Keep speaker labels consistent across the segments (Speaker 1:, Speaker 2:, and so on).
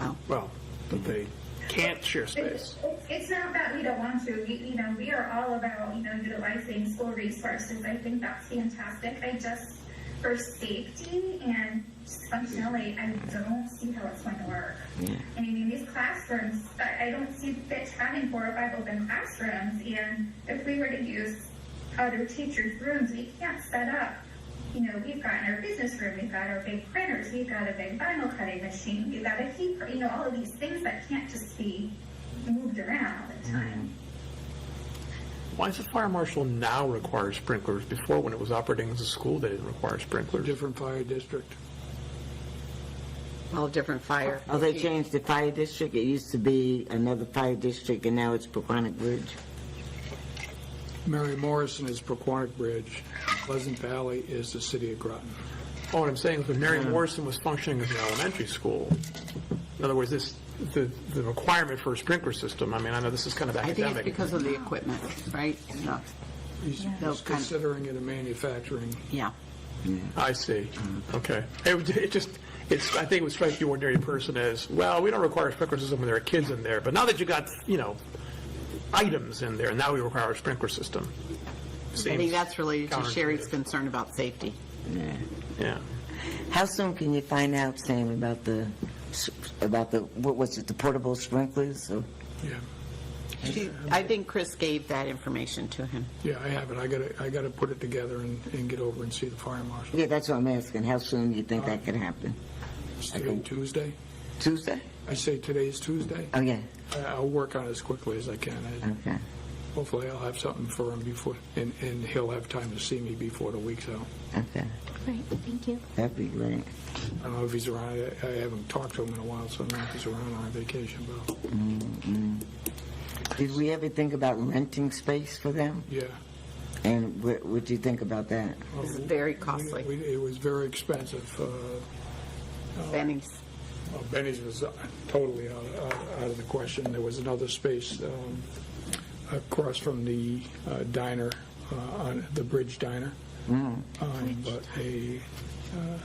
Speaker 1: Oh.
Speaker 2: Well, but they can't share
Speaker 3: It's,
Speaker 2: space.
Speaker 3: it's not that we don't want to. We, you know, we are all about, you know, utilizing school resources. I think that's fantastic. I just, for safety and just functionally, I don't see how it's going to work.
Speaker 1: Yeah.
Speaker 3: I mean, these classrooms, I, I don't see fit having four or five open classrooms. And if we were to use other teachers' rooms, we can't set up. You know, we've got in our business room, we've got our big printers, we've got a big vinyl cutting machine, we've got a heat, pr- you know, all of these things that can't just be moved around all the time.
Speaker 2: Why does the fire marshal now require sprinklers? Before, when it was operating as a school, they didn't require sprinklers.
Speaker 4: different fire district.
Speaker 5: All different fire.
Speaker 1: Oh, they changed the fire district. It used to be another fire district, and now it's Paquonic Bridge.
Speaker 4: Mary Morrison is Proquonic Bridge. Pleasant Valley is the city of Groton.
Speaker 2: Oh, what I'm saying is when Mary Morrison was functioning as an elementary school, in other words, this, the, the requirement for a sprinkler system, I mean, I know this is kind of
Speaker 5: I think it's
Speaker 2: academic.
Speaker 5: because of the equipment, right? No,
Speaker 4: He's
Speaker 5: Those
Speaker 4: he's
Speaker 5: kind of-
Speaker 4: considering it a manufacturing.
Speaker 5: Yeah.
Speaker 2: I see. Okay. It, would- it just, it's, I think it would strike the ordinary person as, well, we don't require sprinkler system when there are kids in there, but now that you got, you know, items in there, now we require a sprinkler system.
Speaker 5: I think that's related to
Speaker 2: Counterintuitive.
Speaker 5: Sherry's concern about safety.
Speaker 1: Yeah.
Speaker 2: Yeah.
Speaker 1: How soon can you find out, Sam, about the, s- about the, what was it, the portable sprinklers? or-
Speaker 4: Yeah,
Speaker 5: She- I think Chris gave that information to him.
Speaker 4: yeah, I have it. I gotta, I gotta put it together and, and get over and see the fire marshal.
Speaker 1: Yeah, that's what I'm asking. How soon do you think that could happen?
Speaker 4: It's today Tuesday.
Speaker 1: Tuesday?
Speaker 4: I say today's Tuesday.
Speaker 1: Oh, yeah,
Speaker 4: I- I'll work on it as quickly as I can. I-
Speaker 1: okay.
Speaker 4: Hopefully I'll have something for him before, and, and he'll have time to see me before the week's out.
Speaker 1: Okay,
Speaker 6: Right, thank you.
Speaker 1: that'd be great.
Speaker 4: I don't know if he's around. I- I haven't talked to him in a while, so I don't know if he's around on vacation, but I'll-
Speaker 1: Did we ever think about renting space for them?
Speaker 4: yeah.
Speaker 1: And what would you think about that?
Speaker 5: It's very costly.
Speaker 4: We- It was very expensive. uh,
Speaker 5: Benny's.
Speaker 4: well, Benny's was uh, totally out out- out of the question. There was another space um, across from the uh, diner, uh, on the Bridge Diner. Um, But a, uh,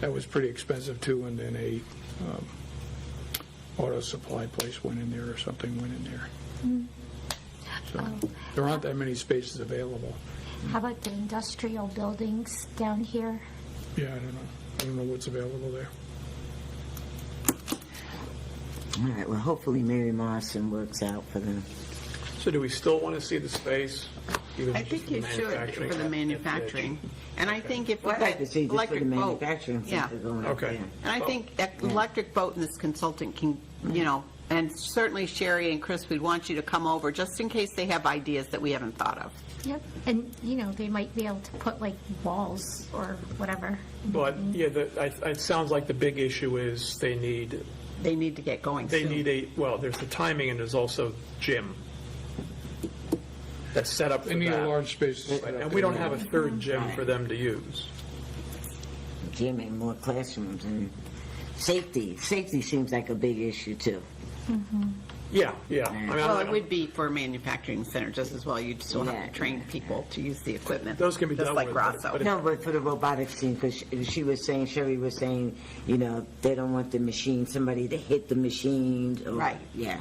Speaker 4: that was pretty expensive too, and then a um, auto supply place went in there or something went in there. So There aren't that many spaces available.
Speaker 6: How about the industrial buildings down here?
Speaker 4: Yeah, I don't know. I don't know what's available there.
Speaker 1: All right, well, hopefully Mary Morrison works out for them.
Speaker 2: So do we still want to see the space? even
Speaker 5: I
Speaker 2: if it's
Speaker 5: think you should
Speaker 2: manufacturing?
Speaker 5: for the manufacturing. And I think if. we
Speaker 1: I'd like to see just for the
Speaker 5: electric boat-
Speaker 1: manufacturing
Speaker 5: Oh, Yeah.
Speaker 1: center going up
Speaker 2: Okay.
Speaker 1: there.
Speaker 5: And I think that electric boat and this consultant can, you know, and certainly Sherry and Chris, we'd want you to come over just in case they have ideas that we haven't thought of.
Speaker 6: Yep. And, you know, they might be able to put like walls or whatever.
Speaker 2: But, yeah, the, I, it sounds like the big issue is they need,
Speaker 5: They need to get going
Speaker 2: they
Speaker 5: soon.
Speaker 2: need a, well, there's the timing and there's also gym. That's set up for
Speaker 4: They need a
Speaker 2: that.
Speaker 4: large space. to set up
Speaker 2: And we don't
Speaker 4: there.
Speaker 2: have a third gym for them to use.
Speaker 1: Jim and more classrooms and safety. Safety seems like a big issue too.
Speaker 2: Yeah, yeah. I mean, I
Speaker 5: Well,
Speaker 2: don't-
Speaker 5: it would be for a manufacturing center just as well. You'd still have
Speaker 1: Yeah.
Speaker 5: to train people to use the equipment.
Speaker 2: Those can be dealt with, but-
Speaker 5: Just like Grasso.
Speaker 2: but
Speaker 1: No, but for the robotics team, because she was saying, Sherry was saying, you know, they don't want the machine, somebody to hit the machines. or-
Speaker 5: Right.
Speaker 1: Yeah.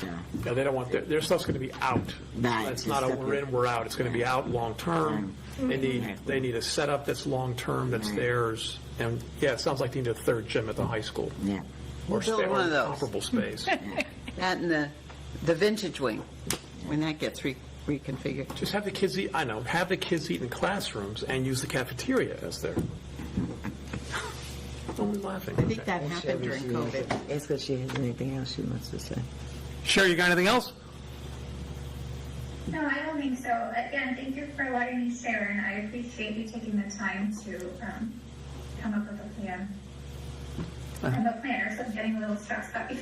Speaker 1: So,
Speaker 2: No, they don't want, their, their stuff's gonna be out.
Speaker 1: Right.
Speaker 2: It's not a we're in, we're out, it's gonna be out long-term. They need, they need a setup that's long-term, that's theirs, and, yeah, it sounds like they need a third gym at the high school.
Speaker 1: yeah.
Speaker 2: Or
Speaker 5: Build
Speaker 2: sta-
Speaker 5: one of
Speaker 2: or
Speaker 5: those.
Speaker 2: comparable space.
Speaker 5: That and the, the vintage wing, when that gets re- reconfigured.
Speaker 2: Just have the kids eat, I know, have the kids eat in classrooms and use the cafeteria as their. Only laughing.
Speaker 5: I think that happened during COVID.
Speaker 1: Ask if she has anything else she wants to say.
Speaker 2: Sherry, you got anything else?
Speaker 3: No, I don't think so. Again, thank you for letting me share, and I appreciate you taking the time to um, come up with a plan.
Speaker 5: Uh-huh.
Speaker 3: I'm a planner, so I'm getting a little stressed out.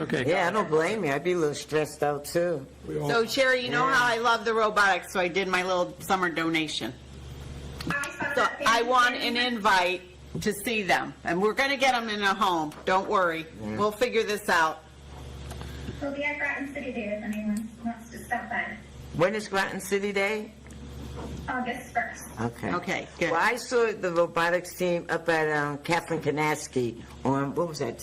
Speaker 2: Okay.
Speaker 1: Yeah, I don't blame you. I'd be a little stressed out too.
Speaker 4: We all-
Speaker 5: So Sherry, you know how I love the robotics, so I did my little summer donation. So I want an invite to see them, and we're gonna get them in a home, don't worry. We'll figure this out.
Speaker 3: We'll be at Groton City Day if anyone wants to stop by.
Speaker 1: When is Groton City Day?
Speaker 3: August 1st.
Speaker 1: Okay.
Speaker 5: Okay, good.
Speaker 1: Well, I saw the robotics team up at um, Kathleen Kanaski on, what was that,